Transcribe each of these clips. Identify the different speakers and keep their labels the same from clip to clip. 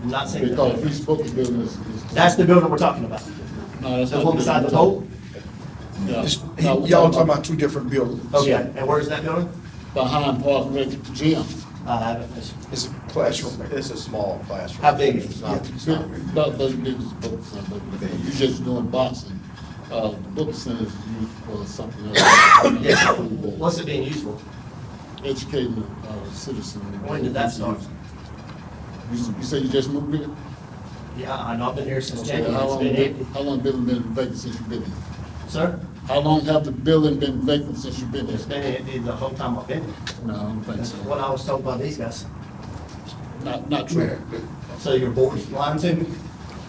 Speaker 1: I'm not saying. that.
Speaker 2: Because these booking buildings is.
Speaker 1: That's the building we're talking about.
Speaker 3: No, that's
Speaker 1: The
Speaker 3: not-
Speaker 1: one beside the pole?
Speaker 3: No,
Speaker 4: This-
Speaker 3: no, we're
Speaker 4: Y'all talking about two different buildings.
Speaker 1: Okay, and where's that building?
Speaker 3: Behind Park Rec Gym,
Speaker 1: Uh, I haven't, it's-
Speaker 4: It's a classroom.
Speaker 5: It's a small classroom.
Speaker 1: How big is it?
Speaker 5: It's not, it's not big.
Speaker 3: but, but they just book center, uh, but you just doing boxing. Uh, book centers used for something else.
Speaker 1: yeah, what's it being used for?
Speaker 3: Educating the uh, citizen.
Speaker 1: When did that start?
Speaker 3: You, you say you just moved in?
Speaker 1: Yeah, I know, I've been here since
Speaker 3: Okay,
Speaker 1: January,
Speaker 3: How
Speaker 1: it's
Speaker 3: long,
Speaker 1: been
Speaker 3: been-
Speaker 1: empty.
Speaker 3: how long building been vacant since you been here?
Speaker 1: Sir,
Speaker 3: How long have the building been vacant since you've been
Speaker 1: it's
Speaker 3: here?
Speaker 1: been empty the whole time I've been here.
Speaker 3: No, I don't think
Speaker 1: That's
Speaker 3: so.
Speaker 1: what I was told by these guys.
Speaker 3: Not, not true.
Speaker 1: So your board's lying to me?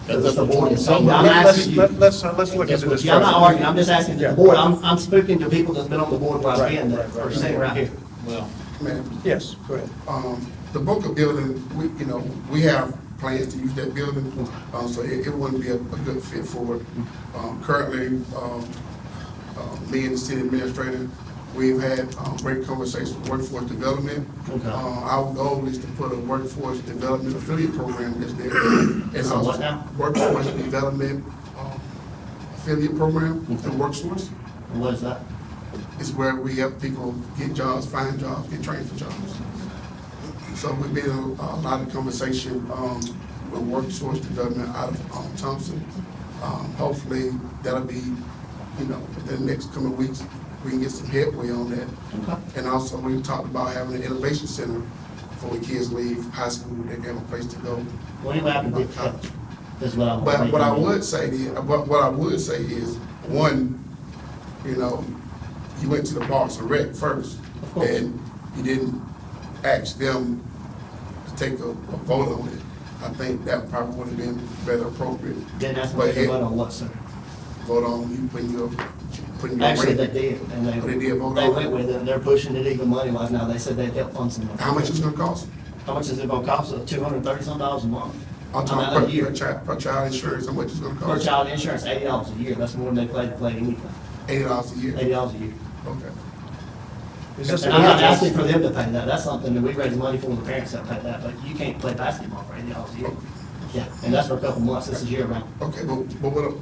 Speaker 1: Because it's
Speaker 3: That's
Speaker 1: the
Speaker 3: what you're
Speaker 1: board,
Speaker 3: talking
Speaker 1: so I'm
Speaker 3: about.
Speaker 1: asking you.
Speaker 5: Let- Let's, uh, let's look into this.
Speaker 1: Yeah, I'm not
Speaker 5: first.
Speaker 1: arguing, I'm just asking the board, I'm, I'm speaking to people that's been on the board where I've
Speaker 5: Right,
Speaker 1: been, that
Speaker 5: right, right.
Speaker 1: are sitting right here.
Speaker 3: Well,
Speaker 4: Ma'am,
Speaker 5: Yes, go ahead.
Speaker 4: um, the Boca building, we, you know, we have plans to use that building, um, so it, it wouldn't be a, a good fit for it. Um, currently, um, uh, me and the city administrator, we've had, um, great conversations with workforce development.
Speaker 1: Okay.
Speaker 4: Uh, our goal is to put a workforce development affiliate program that's there.
Speaker 1: It's a what now?
Speaker 4: Workforce development, um, affiliate program, the workforce.
Speaker 1: And What is that?
Speaker 4: is where we help people get jobs, find jobs, get trained for jobs. So we've been in a lot of conversation um, with workforce development out of um, Thompson. Um, Hopefully, that'll be, you know, within the next coming weeks, we can get some headway on that. And also, we talked about having an innovation center for when kids leave high school, they have a place to go.
Speaker 1: Well, anyway, I can get that. That's what I want.
Speaker 4: But what I would say is, what, what I would say is, one, you know, you went to the Parks and Rec first.
Speaker 1: Of course.
Speaker 4: And you didn't ask them to take a, a vote on it. I think that probably would have been better appropriate.
Speaker 1: Then that's
Speaker 4: But
Speaker 1: what they
Speaker 4: it-
Speaker 1: vote on what, sir?
Speaker 4: Vote on you putting your, putting your.
Speaker 1: Actually, they
Speaker 4: rate.
Speaker 1: did, and they,
Speaker 4: They did vote
Speaker 1: they
Speaker 4: on it.
Speaker 1: went with it, and they're pushing it even money wise now, they said they'd help fund some. of it.
Speaker 4: How much it's gonna cost?
Speaker 1: How much is it gonna cost, two hundred and thirty some dollars a month?
Speaker 4: I'm
Speaker 1: I mean,
Speaker 4: talking per,
Speaker 1: a year.
Speaker 4: per child, per child insurance, how much it's gonna
Speaker 1: Per
Speaker 4: cost?
Speaker 1: child insurance, eighty dollars a year, that's more than they pay to play anything,
Speaker 4: Eighty dollars a year,
Speaker 1: eighty dollars a year.
Speaker 4: okay.
Speaker 5: Is this a
Speaker 1: And I'm not
Speaker 5: contest?
Speaker 1: asking for them to pay that, that's something that we raise money for, and the parents that pay that, but you can't play basketball for eighty dollars a
Speaker 4: Oh.
Speaker 1: year. Yeah, and that's for a couple months, this is year round.
Speaker 4: Okay, but, but what, I'm-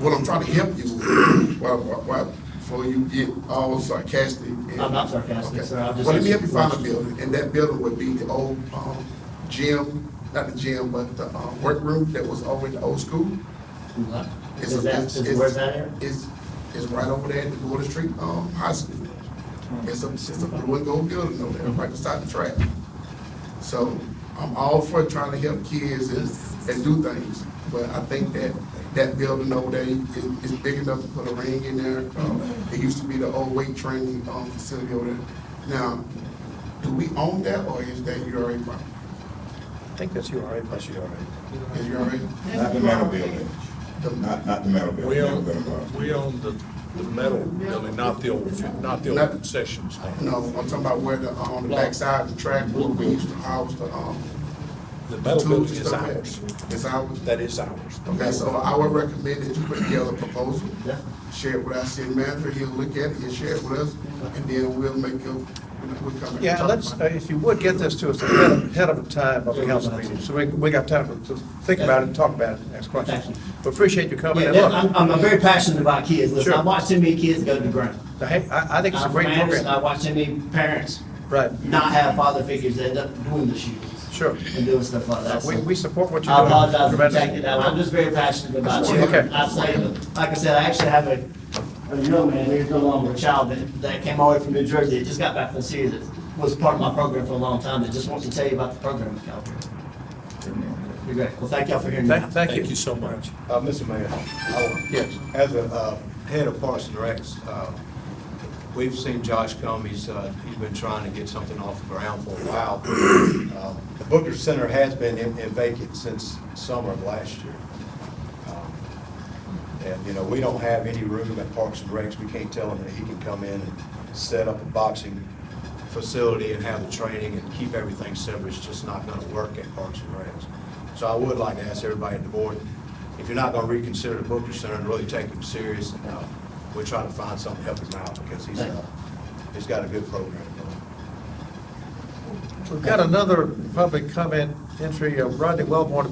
Speaker 4: what I'm trying to help you, with, why, why, why- before you get all sarcastic. and-
Speaker 1: I'm not sarcastic,
Speaker 4: Okay.
Speaker 1: sir, I'm just.
Speaker 4: Well, let me help you
Speaker 1: asking
Speaker 4: find a
Speaker 1: questions.
Speaker 4: building, and that building would be the old, um, gym, not the gym, but the, uh workroom that was over in the old school. It's a-
Speaker 1: Is that,
Speaker 4: it's-
Speaker 1: is,
Speaker 4: it's-
Speaker 1: where's that at?
Speaker 4: It's, it's right over there at the Gordon Street, um, high school. It's a, it's a blue and gold building over there, right beside the track. So I'm all for trying to help kids and, and do things, but I think that that building over there is, is big enough to put a ring in there. Um, It used to be the old weight training, um, facility over there. Now, do we own that or is that URA property?
Speaker 5: I think that's you, all right? That's you, all right.
Speaker 4: Is URA?
Speaker 6: Not the metal building, not, not the metal
Speaker 7: We
Speaker 6: building.
Speaker 7: own,
Speaker 6: Never been involved.
Speaker 7: we own the, the metal building, not the old, not the old concession stand.
Speaker 4: No, I'm talking about where the, on the backside of the track, where we used to house the, um,
Speaker 7: The metal
Speaker 4: tools
Speaker 7: building
Speaker 4: and
Speaker 7: is
Speaker 4: stuff.
Speaker 7: ours.
Speaker 4: It's ours.
Speaker 7: That is ours.
Speaker 4: Okay, so I would recommend that you put together a proposal,
Speaker 1: Yeah.
Speaker 4: share it with our city manager, he'll look at it, he'll share it with us, and then we'll make a, we'll come and
Speaker 5: Yeah,
Speaker 4: talk
Speaker 5: let's,
Speaker 4: about
Speaker 5: uh,
Speaker 4: it.
Speaker 5: if you would, get this to us ahead of- ahead of time of the council meeting, so we, we got time to think about it, and talk about it, and ask questions.
Speaker 1: Thank you.
Speaker 5: We appreciate you coming,
Speaker 1: Yeah,
Speaker 5: and
Speaker 1: that-
Speaker 5: look,
Speaker 1: I'm, I'm I'm very passionate about kids, listen, I
Speaker 5: Sure.
Speaker 1: watched too many kids go to the ground.
Speaker 5: the heck, I, I think it's a
Speaker 1: I'm
Speaker 5: great
Speaker 1: from Anderson, I
Speaker 5: program.
Speaker 1: watched too many parents
Speaker 5: Right,
Speaker 1: not have father figures that end up doing the shootings
Speaker 5: sure.
Speaker 1: and doing stuff like that.
Speaker 5: We,
Speaker 1: So
Speaker 5: we support what you're
Speaker 1: I
Speaker 5: doing.
Speaker 1: apologize for
Speaker 5: tremendously.
Speaker 1: taking that, I'm just very passionate about children.
Speaker 5: Okay.
Speaker 1: I say, like I said, I actually have a, a young man, he's no longer a child, that, that came all the way from New Jersey, that just got back from Syria, that was part of my program for a long time, that just wants to tell you about the program in California. Be great, well, thank y'all for hearing me.
Speaker 5: Thank, thank
Speaker 7: Thank
Speaker 5: you.
Speaker 7: you so much.
Speaker 8: Uh, Mr. Mayor, I-
Speaker 5: Yes.
Speaker 8: as a uh, head of Parks and Recs, uh, we've seen Josh come, he's, uh, he's been trying to get something off the ground for a while. Uh, The Booker Center has been in in vacant since summer of last year. Um, And, you know, we don't have any room at Parks and Recs, we can't tell him that he can come in and set up a boxing facility and have the training and keep everything separate, it's just not gonna work at Parks and Recs. So I would like to ask everybody at the board, if you're not gonna reconsider the Booker Center and really take him serious, uh, we're trying to find something to help him out, because he's, uh, he's got a good program going.
Speaker 5: We've got another public comment entry, uh, Rodney Wellborn,